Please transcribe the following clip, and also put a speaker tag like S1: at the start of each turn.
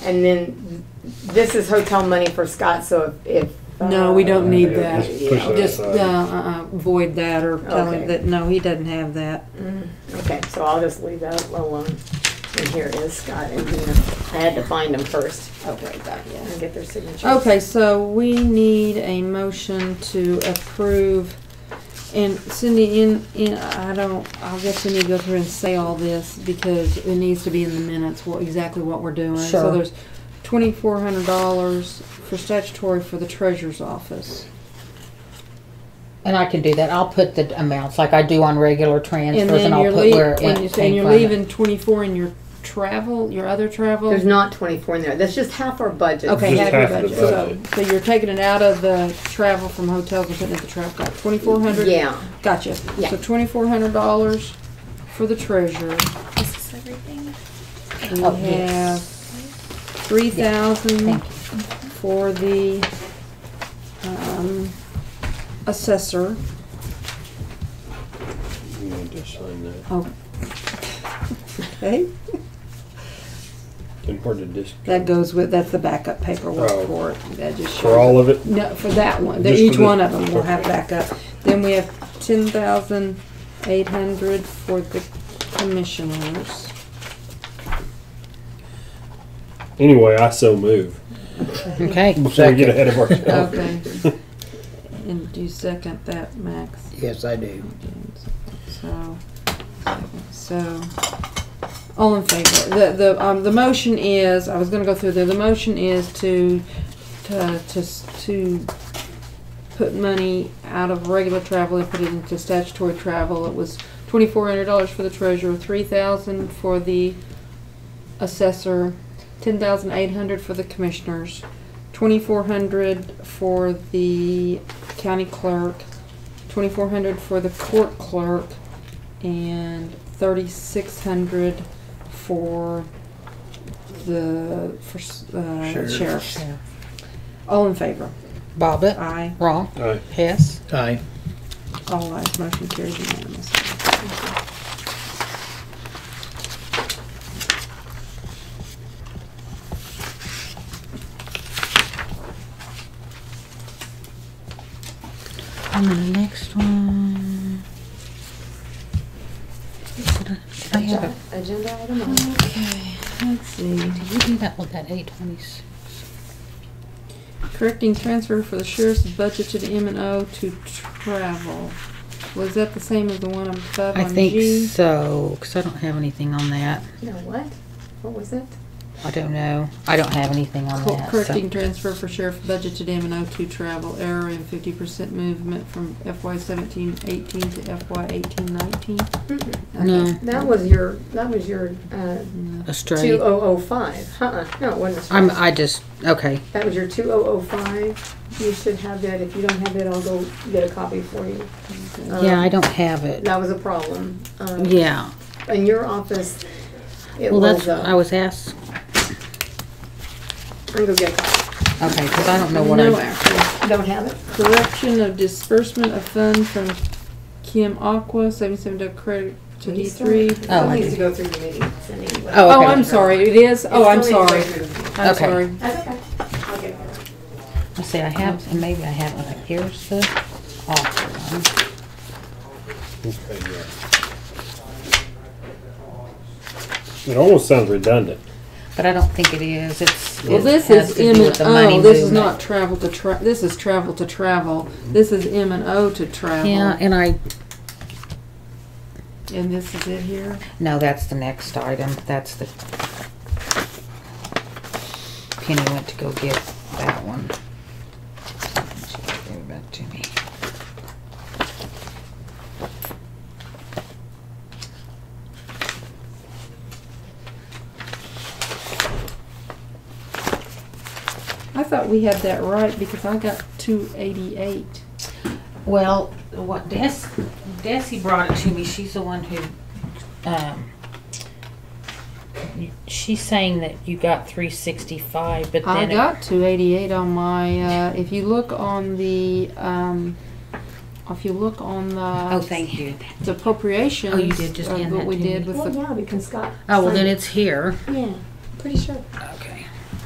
S1: And then this is hotel money for Scott, so if. if,
S2: No, we don't need
S1: uh,
S2: that.
S1: yeah,
S3: Push that
S2: Just, uh,
S3: aside.
S2: uh, void that or tell
S1: Okay.
S2: him that, no, he doesn't have that.
S1: Mm, Okay, so I'll just leave that alone. And here it is, Scott and Dina. I had to find them first
S2: Okay, that,
S1: and get their signatures.
S2: Okay, so we need a motion to approve, and Cindy, in, in, I don't, I guess we need to go through and say all this, because it needs to be in the minutes, what, exactly what we're doing. So
S4: Sure.
S2: there's twenty-four hundred dollars for statutory for the treasurer's office.
S4: And I can do that. I'll put the amounts like I do on regular transfers,
S2: And
S4: and,
S2: then
S4: I'll
S2: you're
S4: put where it
S2: leaving, and
S4: came
S2: you're
S4: from.
S2: leaving twenty-four in your travel, your other travel?
S1: There's not twenty-four in there. That's just half our budget.
S2: Okay,
S3: Just
S2: half your
S3: half of
S2: budget,
S3: the
S2: so, so you're taking it out of the travel from hotels and putting it in the travel, got twenty-four hundred?
S1: Yeah.
S2: Gotcha.
S1: Yeah.
S2: So twenty-four hundred dollars for the treasurer.
S5: Is this everything?
S2: We
S4: Oh,
S2: have
S4: yes.
S2: three thousand
S4: Thank you.
S2: for the, um, assessor.
S3: You need to sign that.
S2: Oh. Okay,
S3: Then where did this?
S2: that goes with, that's the backup
S3: Oh.
S2: paperwork for it. That just
S3: For all of it?
S2: No, for that one, the-
S3: Just
S2: each
S3: for the-
S2: one of them will have backup. Then we have ten thousand eight hundred for the commissioners.
S3: Anyway, I so move.
S4: Okay.
S3: Before we get
S4: second.
S3: ahead of
S6: Oh.
S3: ourselves.
S2: Okay. And do you second that, Max?
S6: Yes, I do.
S2: So, so, all in favor? The, the, um, the motion is, I was gonna go through there, the motion is to, to, to, s- to put money out of regular travel and put it into statutory travel. It was twenty-four hundred dollars for the treasurer, three thousand for the assessor, ten thousand eight hundred for the commissioners, twenty-four hundred for the county clerk, twenty-four hundred for the court clerk, and thirty-six hundred for the, for, s- uh,
S6: Sheriff.
S2: sheriff. All in favor?
S4: Bobbit,
S2: Aye.
S4: Wrong.
S3: Aye.
S4: Hess,
S6: Aye.
S2: All ayes, motion carries unanimously.
S4: And then the next one. I have it.
S1: Agenda item on.
S4: Okay.
S2: Let's see.
S4: Did you do that with that eight twenties?
S2: Correcting transfer for the sheriff's budgeted M and O to travel. Was that the same as the one above
S4: I
S2: on
S4: think
S2: G?
S4: so, because I don't have anything on that.
S1: No, what? What was it?
S4: I don't know. I don't have anything on
S2: Co-
S4: that. so-
S2: Correcting transfer for sheriff budgeted M and O to travel error and fifty percent movement from FY seventeen eighteen to FY eighteen nineteen.
S1: Mm-mm.
S4: No,
S1: Mm-hmm. That was your, that was your, uh, two
S4: Australia.
S1: oh oh five. Uh-uh, no, it wasn't.
S4: I'm, I just, okay.
S1: That was your two oh oh five. You should have that. If you don't have it, I'll go get a copy for you.
S2: Uh,
S4: Yeah, I
S1: Um,
S4: don't have it.
S1: That was a problem. Um,
S4: Yeah.
S1: In your office, it
S4: Well,
S1: was,
S4: that's what I
S1: uh,
S4: was asked.
S1: I'm gonna go get a copy.
S4: Okay, because I don't know what
S2: No
S4: I'm.
S2: action.
S1: Don't have it?
S2: Correction of disbursement of fund from Kim Aqua, seventy-seven to credit to D three.
S1: It
S4: Oh,
S1: still
S4: I
S1: needs
S4: do.
S1: to go through the meetings anyway.
S4: Oh,
S2: Oh,
S4: okay.
S2: I'm sorry, it is,
S1: It
S2: oh, I'm
S1: still
S2: sorry,
S1: needs to go through the meetings.
S2: I'm
S4: Okay.
S2: sorry.
S1: That's okay. I'll get it.
S4: I see, I have, and maybe I have, it. like, here's the awful one.
S3: Okay, yeah. It almost sounds redundant.
S4: But I don't think it is, it's.
S2: Well,
S4: it
S2: this
S4: has
S2: is
S4: to do
S2: M
S4: with
S2: and
S4: the money
S2: O, this is
S4: movement.
S2: not travel to tra, this is travel to travel, this is M and O to
S4: Yeah,
S2: travel.
S4: and I,
S2: And this is it here,
S4: no, that's the next item, that's the. Penny went to go get that one. She gave it back to me.
S2: I thought we had that right because I got two eighty-eight.
S4: Well, what Des, Desi brought it to me, she's the one who, um, she's saying that you got three sixty-five, but
S2: I
S4: then. it-
S2: got two eighty-eight on my, uh, if you look on the, um, if you look on the.
S4: Oh, thank you.
S2: the appropriations.
S4: Oh, you did just
S2: of
S4: hand
S2: what
S4: that
S2: we
S4: to
S2: did
S4: me.
S2: with
S1: Well,
S2: the,
S1: yeah, because Scott.
S4: Oh, well, then
S1: signed
S4: it's here.
S1: Yeah, pretty sure.